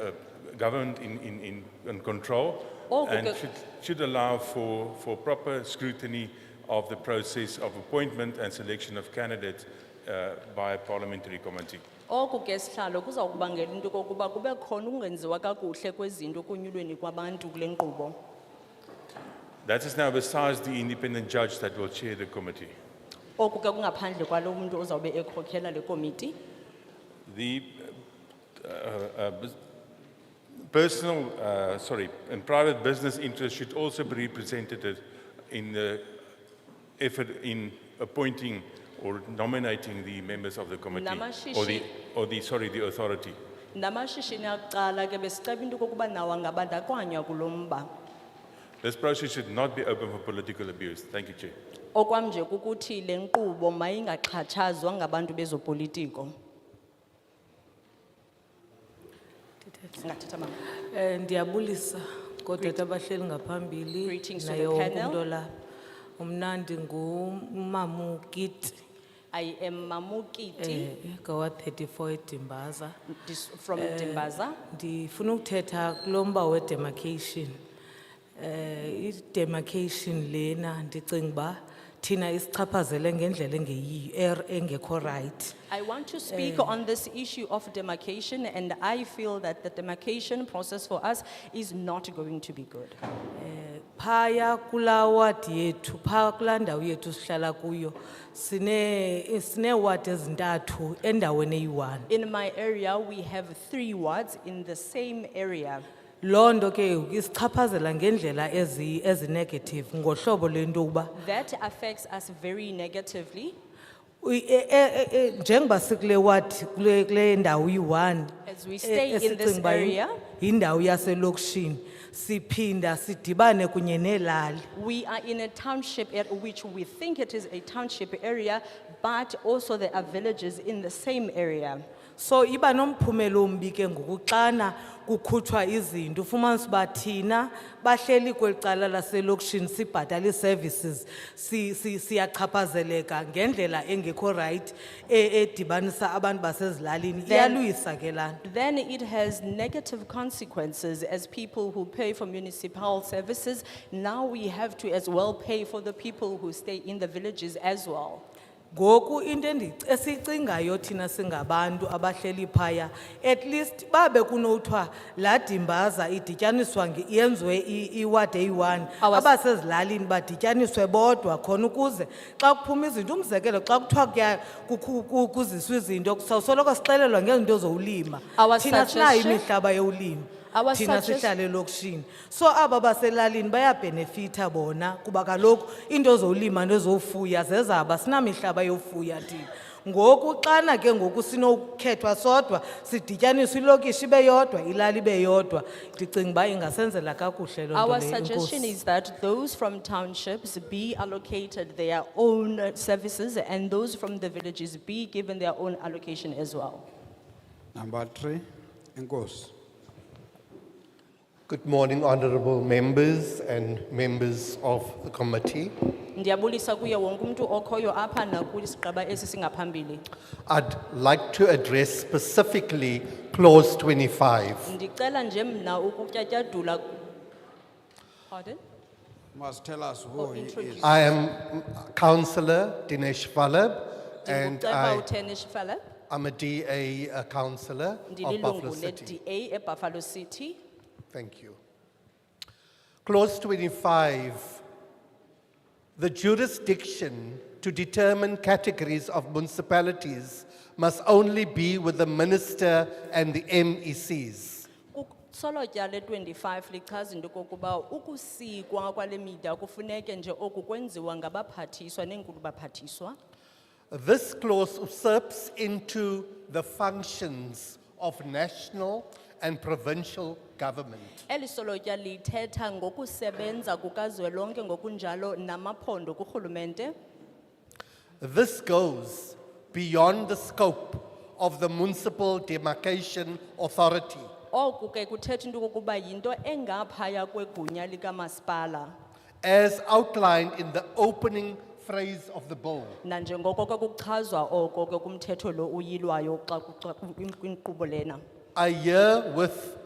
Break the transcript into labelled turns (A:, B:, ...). A: uh, governed in, in, in, in control
B: Oh,
A: and
B: because-
A: should, should allow for, for proper scrutiny of the process of appointment and selection of candidates uh, by a parliamentary committee.
B: Oku ke sihlalo kuza kubangela into kokuba kube khona ukungenziwa kakuhle kwezinto kunyulweni kwabantu kule nkqubo.
A: That is now besides the independent judge that will chair the committee.
B: Oku ke kungaphandle kwalo muntu ozawube ekhokhela le komiti.
A: The uh, uh, bus- personal, uh, sorry, and private business interests should also be represented in the effort in appointing or nominating the members of the committee or the,
B: Namashishi-
A: or the sorry, the authority.
B: Namashishini akuqala ke besiceba into kokuba nawo angabandakanywa kulo mba.
A: This process should not be open for political abuse. Thank you, Chair.
B: Okwam nje kukuthi le nkqubo mayingaxhatshazwa ngabantu bezopolitiko. Singathetha mama.
C: Eh, ndiyabulisa kodata abahleli ngaphambili
B: Greetings to the
C: naye wonke
B: panel.
C: umntu olapha umnandi ngumamukiti
B: I am Mamukiti
C: gawa 34 eh, edimbaza
B: dis- from Dimbaza.
C: ndifuna ukuthetha kulo mba wedemarcation um idemarcation lena ndicinga uba thina isichaphazele ngendlela engeyiyo er- engekho rayithi
B: I want to speak on this issue of demarcation and I feel that the demarcation process for us is not going to be good.
C: phaya kulaa wadi yethu phaa kulaa ndawo yethu sihlala kuyo sine- sineewadi ezintathu endaweni eyi-one
B: In my area, we have three wards in the same area.
C: loo nto ke isichaphazela ngendlela ezi- ezinegative ngohlobo lento yokuba
B: That affects us very negatively.
C: u- e- e- e- e- njengoba sikule wadi kule kule ndawo iyi-one
B: As we
C: e-
B: stay in this
C: esicinga uba yi-
B: area.
C: yindawo yaselokishini siphinda sidibane kunye neelali
B: We are in a township at which we think it is a township area, but also there are villages in the same area.
C: So iba nomphumela ombi ke ngokuxana kukhutshwa izinto ufumanise uba thina bahleli kweli cala laselokishini sibhatala ii-services si- si- siyachaphazeleka ngendlela engekho rayithi edibanisa abantu basezilalini
B: Then-
C: iyaluyisa ke laa nto
B: Then it has negative consequences as people who pay for municipal services. Now we have to as well pay for the people who stay in the villages as well.
C: ngoku into endic- esiyicingayo thina singabantu abahleli phaya at least babe kunothiwa laa dimbaza idityaniswa nge- yenziwe i- iwadi eyi-one
B: Awas-
C: abasezilalini badityaniswe bodwa khona ukuze xa kuphuma izinto umzekelo xa kuthiwa kuya- kukhu- ku- kuziswa izinto sawusoloko sixelelwa ngezinto zowulima
B: Our
C: thina sinayo
B: suggestion-
C: imihlaba yowulima
B: Our
C: thina
B: sugges-
C: sihlala elokishini so aba baselalini bayabhenefitha bona kuba kaloku iinto zowulima nezofuya zezaba sinamihlaba yofuya thina ngoku xana ke ngoku sinokukhethwa sodwa sidityaniswe ilokishi ibe yodwa ilali ibe yodwa ndicinga uba ingasenzela kakuhle loo nto
B: Our
C: leyo.
B: suggestion
C: Enkosi.
B: is that those from townships be allocated their own uh, services and those from the villages be given their own allocation as well.
D: Number three, Ngos.
E: Good morning, honorable members and members of the committee.
B: Ndiyabulisa kuye wonke umuntu okhoyo apha nakwisigaba esi singaphambili.
E: I'd like to address specifically clause 25.
B: Ndicela nje mna ukutyatyadula. Pardon?
D: Must tell us who
B: Or
D: he
B: introduce.
D: is.
E: I am councillor Dinesh Valab and
B: Ndinguceba
E: I,
B: uTenish Fellow,
E: I'm a DA councillor of Buffalo
B: ndililungu
E: City.
B: le-DA eBuffalo City.
E: Thank you. Clause 25 The jurisdiction to determine categories of municipalities must only be with the minister and the E MECs.
B: Solotya le-25 lichaza into kokuba ukusikwa kwale mida kufuneke nje oku kwenziwa ngabaphathiswa neenkulu baphathiswa.
E: This clause usurps into the functions of national and provincial government.
B: Eli solotya lithetha ngokusebenza kukazwelonke ngokunjalo namaphondo kurhulumente.
E: This goes beyond the scope of the municipal demarcation authority.
B: Oku ke kuthetha into kokuba yinto engaphaya kwegunya likamasipala.
E: as outlined in the opening phrase of the bill.
B: Nanjengoko ke kuchazwa oko ke kumthetho lo uyilwayo xa kuxa- kwinkqubo lena.
E: I hear with